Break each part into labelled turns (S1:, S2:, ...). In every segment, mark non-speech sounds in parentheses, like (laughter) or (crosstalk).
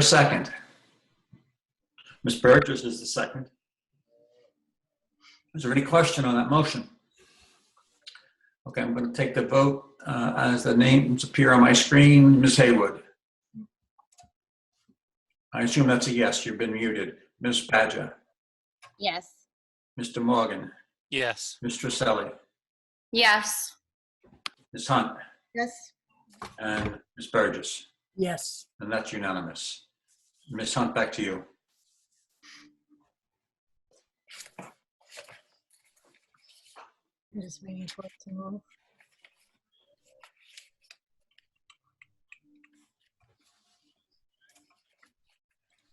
S1: a second?
S2: Ms. Burgess is the second.
S1: Is there any question on that motion? Okay, I'm going to take the vote uh, as the names appear on my screen. Ms. Haywood? I assume that's a yes, you've been muted. Ms. Badger?
S3: Yes.
S1: Mr. Morgan?
S4: Yes.
S1: Mr. Selly?
S3: Yes.
S1: Ms. Hunt?
S3: Yes.
S1: And Ms. Burgess?
S5: Yes.
S1: And that's unanimous. Ms. Hunt, back to you.
S5: I'm just waiting for it to move.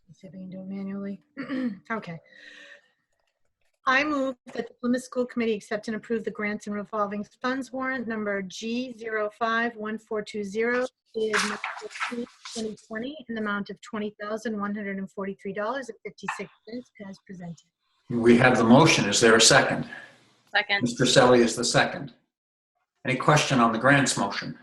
S5: Let's See if I can do it
S6: (clears throat)
S5: manually. Okay.
S6: I move that the Plymouth School Committee accept and approve the grants and revolving funds warrant number G051420 dated March 15, 2020 in the amount of $20,143.56 as presented.
S1: We have the motion, is there a second?
S3: Second.
S1: Mr. Selly is the second. Any question on the grants motion?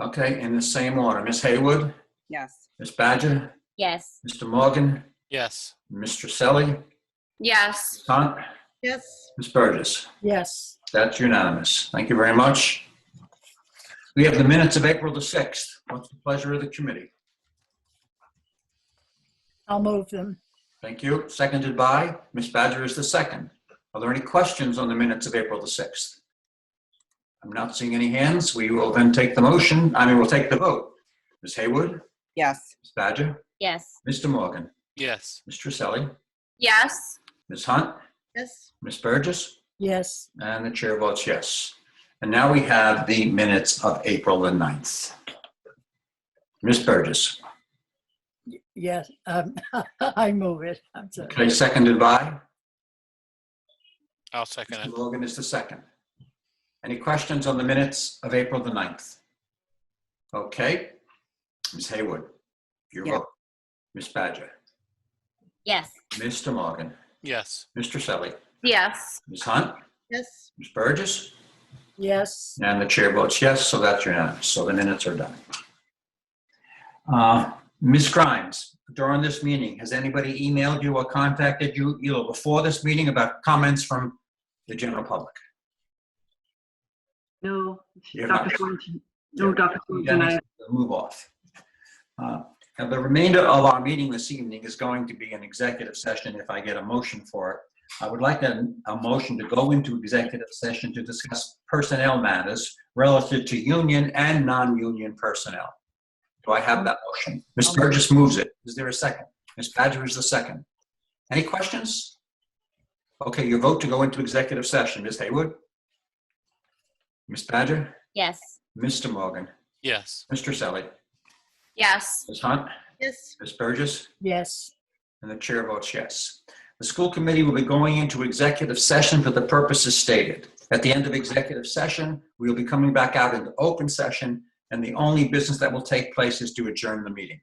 S1: Okay, in the same order, Ms. Haywood,
S7: Yes.
S1: Ms. Badger,
S3: Yes.
S1: Mr. Morgan,
S4: Yes.
S1: Mr. Selly,
S3: Yes.
S1: Hunt,
S6: Yes,
S1: Ms. Burgess.
S5: Yes.
S1: That's unanimous. Thank you very much. We have the minutes of April the 6th. What's the pleasure of the committee?
S5: I'll move them.
S1: Thank you. Seconded by Ms. Badger is the second. Are there any questions on the minutes of April the 6th? I'm not seeing any hands. We will then take the motion. I mean, we'll take the vote. Ms. Haywood?
S7: Yes.
S1: Ms. Badger,
S3: Yes.
S1: Mr. Morgan,
S4: Yes.
S1: Ms. Trisselli,
S3: Yes.
S1: Ms. Hunt,
S6: yes,
S1: Ms. Burgess,
S5: Yes.
S1: and the chair votes yes. And now we have the minutes of April the 9th. Ms. Burgess,
S5: Yes. Um, (laughs) I move it. I'm sorry.
S1: okay, seconded by,
S4: I'll second
S1: Mr.
S4: it.
S1: Morgan is the second. Any questions on the minutes of April the 9th? Okay, Ms. Haywood, your
S7: Yeah.
S1: vote. Ms. Badger,
S3: Yes.
S1: Mr. Morgan,
S4: Yes.
S1: Mr. Selly,
S3: Yes.
S1: Ms. Hunt,
S6: yes,
S1: Ms. Burgess,
S5: Yes.
S1: And the chair votes yes, so that's unanimous. So the minutes are done. Uh, Ms. Grimes, during this meeting, has anybody emailed you or contacted you either before this meeting about comments from the general public?
S8: No,
S1: You have
S8: Dr.
S1: not.
S8: Thornton, no, Dr. Thornton, I,
S1: Dennis, Move off. Uh, Now, the remainder of our meeting this evening is going to be an executive session if I get a motion for it. I would like a, a motion to go into executive session to discuss personnel matters relative to union and non-union personnel. Do I have that motion? Ms. Burgess moves it. Is there a second? Ms. Badger is the second. Any questions? Okay, your vote to go into executive session. Ms. Haywood? Ms. Badger?
S3: Yes.
S1: Mr. Morgan?
S4: Yes.
S1: Mr. Selly,
S3: Yes.
S1: Ms. Hunt,
S6: yes.
S1: Ms. Burgess,
S5: Yes.
S1: and the chair votes yes. The school committee will be going into executive session for the purposes stated. At the end of executive session, we will be coming back out into open session, and the only business that will take place is to adjourn the meeting.